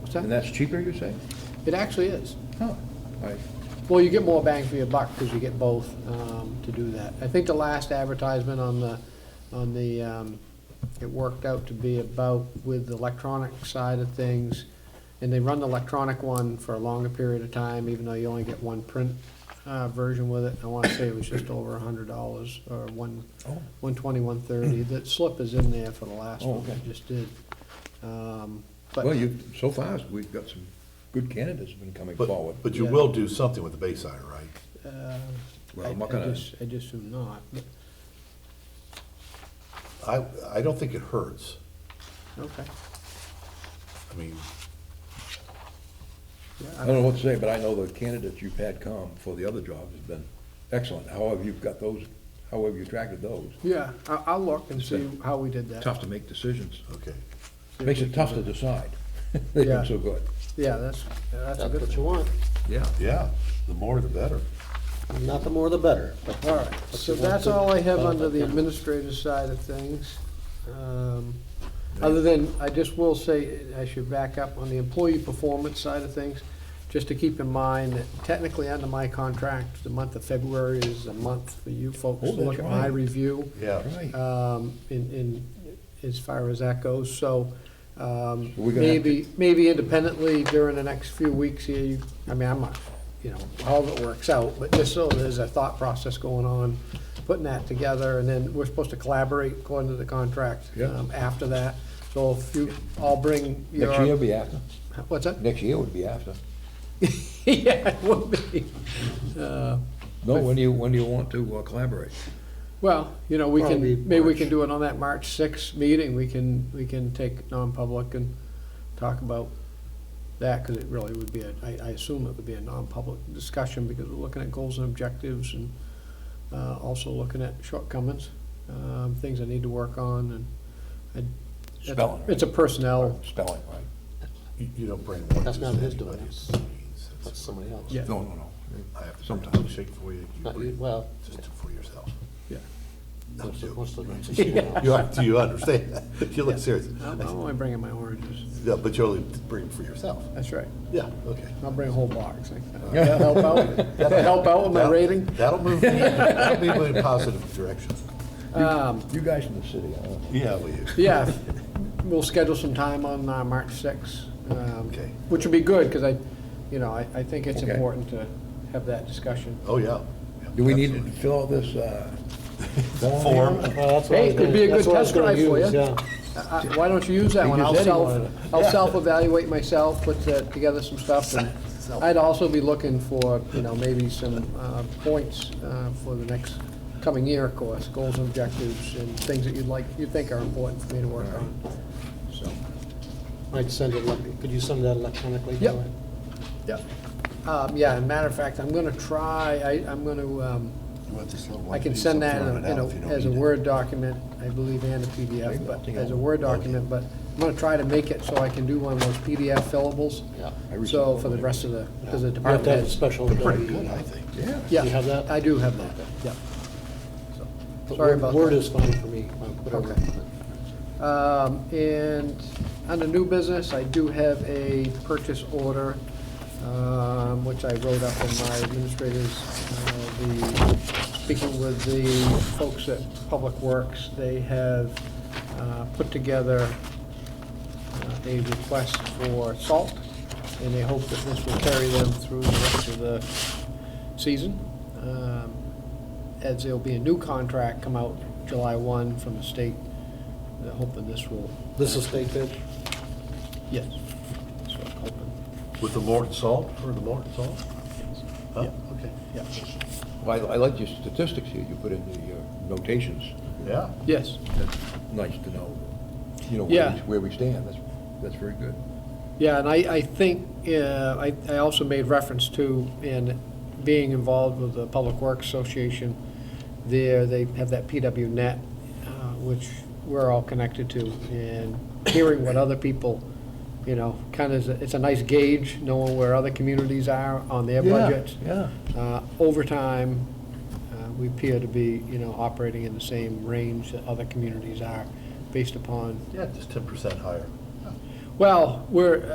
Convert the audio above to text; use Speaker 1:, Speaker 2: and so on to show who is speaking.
Speaker 1: What's
Speaker 2: And
Speaker 1: that?
Speaker 2: that's cheaper, you say?
Speaker 1: It actually is.
Speaker 2: Oh, I,
Speaker 1: Well, you get more bang for your buck because you get both um, to do that. I think the last advertisement on the, on the, um, it worked out to be about with the electronic side of things. And they run the electronic one for a longer period of time, even though you only get one print uh, version with it. I want to say it was just over a hundred dollars or one,
Speaker 2: oh,
Speaker 1: one twenty, one thirty. The slip is in there for the last
Speaker 2: Oh,
Speaker 1: one
Speaker 2: okay.
Speaker 1: we just did. Um, but-
Speaker 2: well, you, so far, we've got some good candidates have been coming forward.
Speaker 3: But, but you
Speaker 1: Yeah.
Speaker 3: will do something with the Bayside, right?
Speaker 1: Uh,
Speaker 2: Well,
Speaker 1: I
Speaker 2: I'm not
Speaker 1: I
Speaker 2: gonna-
Speaker 1: just, I just do not. but-
Speaker 3: I, I don't think it hurts.
Speaker 1: Okay.
Speaker 3: I mean,
Speaker 2: I
Speaker 1: Yeah,
Speaker 2: don't know what to say, but I know the candidates you've had come for the other jobs have been excellent. However, you've got those, however you attracted those.
Speaker 1: Yeah, I- I'll look and see how we did that.
Speaker 2: Tough to make decisions.
Speaker 3: okay.
Speaker 2: Makes it tough to decide. They've
Speaker 1: Yeah.
Speaker 2: been so good.
Speaker 1: Yeah, that's, that's a
Speaker 4: That's
Speaker 1: good
Speaker 4: what you
Speaker 1: thing.
Speaker 4: want.
Speaker 2: Yeah.
Speaker 3: Yeah, the more the better.
Speaker 4: Not the more the better. but-
Speaker 1: All right, so
Speaker 4: you want
Speaker 1: that's
Speaker 4: to-
Speaker 1: all I have under the
Speaker 4: Yeah.
Speaker 1: administrative side of things. Um, Other than, I just will say, I should back up on the employee performance side of things, just to keep in mind that technically under my contract, the month of February is a month for you folks to
Speaker 2: Oh, that's
Speaker 1: look at my
Speaker 2: right.
Speaker 1: review.
Speaker 3: Yeah.
Speaker 2: Right.
Speaker 1: um, in, in, as far as that goes, so, um,
Speaker 2: We're gonna have to-
Speaker 1: maybe, maybe independently during the next few weeks here, you, I mean, I'm not, you know, all of it works out, but just so there's a thought process going on, putting that together, and then we're supposed to collaborate according to the contract,
Speaker 2: Yeah.
Speaker 1: um, after that. So if you all bring your.
Speaker 2: Next year would be after.
Speaker 1: What's that?
Speaker 2: Next year would be after.
Speaker 1: Yeah, it will be. Uh,
Speaker 2: No, when do you, when do you want to uh, collaborate?
Speaker 1: Well, you know, we
Speaker 4: Probably
Speaker 1: can, maybe we
Speaker 4: March.
Speaker 1: can do it on that March sixth meeting, we can, we can take non-public and talk about that, because it really would be, a I I assume it would be a non-public discussion, because we're looking at goals and objectives and uh, also looking at shortcomings, um, things I need to work on, and. I- it's-
Speaker 2: Spelling, right?
Speaker 1: It's a personnel,
Speaker 2: Spelling, right?
Speaker 3: You, you don't bring one.
Speaker 4: That's
Speaker 3: to
Speaker 4: not his doing,
Speaker 3: anybody's meetings.
Speaker 4: That's
Speaker 3: That's-
Speaker 4: somebody else.
Speaker 1: yeah,
Speaker 2: No, no, no.
Speaker 3: I have to
Speaker 2: Sometimes.
Speaker 3: bring a shake for you. You
Speaker 4: Not you,
Speaker 3: bring
Speaker 4: well.
Speaker 3: Just for yourself.
Speaker 1: yeah.
Speaker 3: Not
Speaker 4: Most of-
Speaker 3: you.
Speaker 4: most of it's you now.
Speaker 3: You, are- do you understand that? You look serious.
Speaker 1: Oh, I'm I'm only bringing my oranges,
Speaker 3: Yeah, but you only bring for yourself.
Speaker 1: that's right,
Speaker 3: Yeah, okay.
Speaker 1: I'll bring a whole box, like, that'll help out, that'll help out with my
Speaker 3: That'll-
Speaker 1: rating.
Speaker 3: That'll move, me- that'll move me in a positive direction.
Speaker 2: You guys from the city, I don't know.
Speaker 3: Yeah, will you?
Speaker 1: Yeah, we'll schedule some time on uh, March 6th. um,
Speaker 3: Okay.
Speaker 1: Which would be good, because I, you know, I I think it's
Speaker 2: Okay.
Speaker 1: important to have that discussion.
Speaker 3: Oh, yeah. Yeah,
Speaker 2: Do we need to
Speaker 3: absolutely.
Speaker 2: fill out this, uh,
Speaker 3: Form.
Speaker 4: Well, that's what I
Speaker 1: Hey,
Speaker 4: was
Speaker 1: it'd be
Speaker 4: gonna-
Speaker 1: a good
Speaker 4: that's what I was
Speaker 1: test
Speaker 4: gonna
Speaker 1: drive for
Speaker 4: use,
Speaker 1: you.
Speaker 4: yeah.
Speaker 1: I- I- Uh, Why don't you use that
Speaker 2: You
Speaker 1: one?
Speaker 2: just
Speaker 1: I'll
Speaker 2: said you
Speaker 1: self,
Speaker 2: wanted it.
Speaker 1: I'll self-evaluate myself, put uh, together some stuff. and I'd also be looking for, you know, maybe some uh, points uh, for the next coming year, of course, goals and objectives, and things that you'd like, you think are important for me to work on. So,
Speaker 4: Might send it, elec- could you send that electronically?
Speaker 1: Yep.
Speaker 4: Howard?
Speaker 1: yeah. Um, Yeah, and matter of fact, I'm going to try, I- I'm um, going to
Speaker 3: You want this little
Speaker 1: I can
Speaker 3: one piece,
Speaker 1: send
Speaker 3: I'll
Speaker 1: that in
Speaker 3: throw
Speaker 1: a-
Speaker 3: it out
Speaker 1: in
Speaker 3: if you
Speaker 1: a,
Speaker 3: don't
Speaker 1: as a
Speaker 3: need it.
Speaker 1: Word document, I believe, and a PDF, but as a Word document, but I'm gonna try to make it so I can do one of those PDF fillables.
Speaker 4: Yeah.
Speaker 1: So for the rest of the, because the
Speaker 4: You have
Speaker 1: department
Speaker 4: to have a
Speaker 1: heads.
Speaker 4: special.
Speaker 3: Pretty good, I think.
Speaker 2: yeah.
Speaker 1: Yeah,
Speaker 4: you have that?
Speaker 1: I do have that, yeah. So,
Speaker 4: But
Speaker 1: Sorry
Speaker 4: Word-
Speaker 1: about
Speaker 4: Word
Speaker 1: that.
Speaker 4: is fine for me, whatever.
Speaker 1: Okay. Um, And under new business, I do have a purchase order, um, which I wrote up in my administrators, uh, the, speaking with the folks at Public Works, they have uh, put together uh, a request for salt, and they hope that this will carry them through the rest of the season. Um, As there'll be a new contract come out July 1 from the state, I hope that this will,
Speaker 4: This is state bid?
Speaker 1: yes. So I'm hoping,
Speaker 3: With the Morton salt, or the Morton salt? Huh? Okay.
Speaker 1: yeah.
Speaker 2: Well, I I like your statistics here, you put in the uh, notations.
Speaker 3: Yeah.
Speaker 1: Yes,
Speaker 2: That's nice to know, you know, where
Speaker 1: Yeah.
Speaker 2: we- where we stand. That's, that's very good.
Speaker 1: yeah, and I, I think, uh, I, I also made reference to, in being involved with the Public Works Association, there, they have that PW net, uh, which we're all connected to, and hearing what other people, you know, kind of, it's a nice gauge, knowing where other communities are on their budgets.
Speaker 2: Yeah.
Speaker 1: Uh, Over time, uh, we appear to be, you know, operating in the same range that other communities are, based upon,
Speaker 3: Yeah, just ten percent higher.
Speaker 1: well, we're,